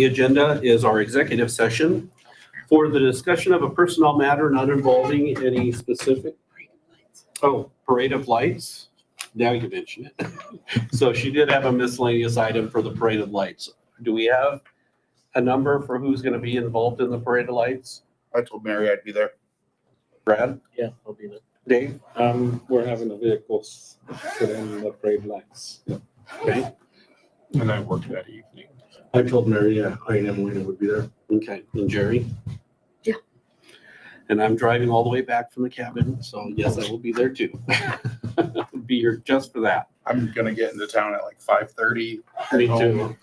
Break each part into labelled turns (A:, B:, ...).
A: The agenda is our executive session for the discussion of a personnel matter not involving any specific, oh, parade of lights. Now you mention it. So she did have a miscellaneous item for the parade of lights. Do we have a number for who's going to be involved in the parade of lights?
B: I told Mary I'd be there.
A: Brad,
C: Yeah, I'll be there.
A: Dave?
C: Um, we're having a vehicle s- put in the parade lights.
A: Okay.
C: And I work that evening.
D: I told Mary, yeah, I and Emily would be there.
A: Okay, and Jerry?
E: Yeah.
A: And I'm driving all the way back from the cabin, so yes, I will be there too. Be here just for that.
B: I'm gonna get into town at like five thirty.
A: Me too.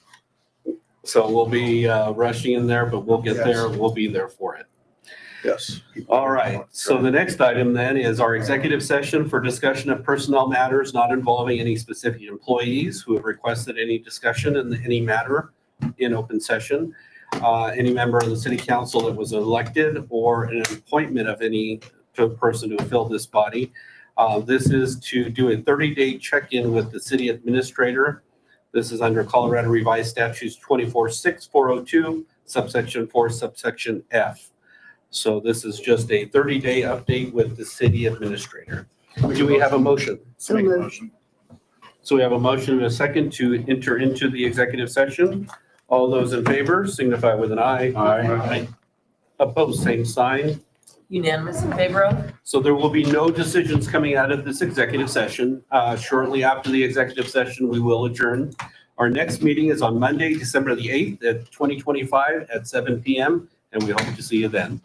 A: So we'll be uh, rushing in there, but we'll get there. We'll be there for it.
B: Yes.
A: All right. So the next item then is our executive session for discussion of personnel matters not involving any specific employees who have requested any discussion in any matter in open session. Uh, Any member of the city council that was elected or an appointment of any to- person to fill this body. Uh, This is to do a 30-day check-in with the city administrator. This is under Colorado Revised Statutes 246402 subsection 4 subsection F. So this is just a 30-day update with the city administrator. Do we have a motion?
E: So
B: Make a
E: moved.
B: motion.
A: So we have a motion and a second to enter into the executive session. All those in favor signify with an aye.
B: Aye.
A: Opposed, same sign.
F: Unanimous in favor of?
A: So there will be no decisions coming out of this executive session. Uh, Shortly after the executive session, we will adjourn. Our next meeting is on Monday, December the 8th at 2025 at 7 PM, and we hope to see you then.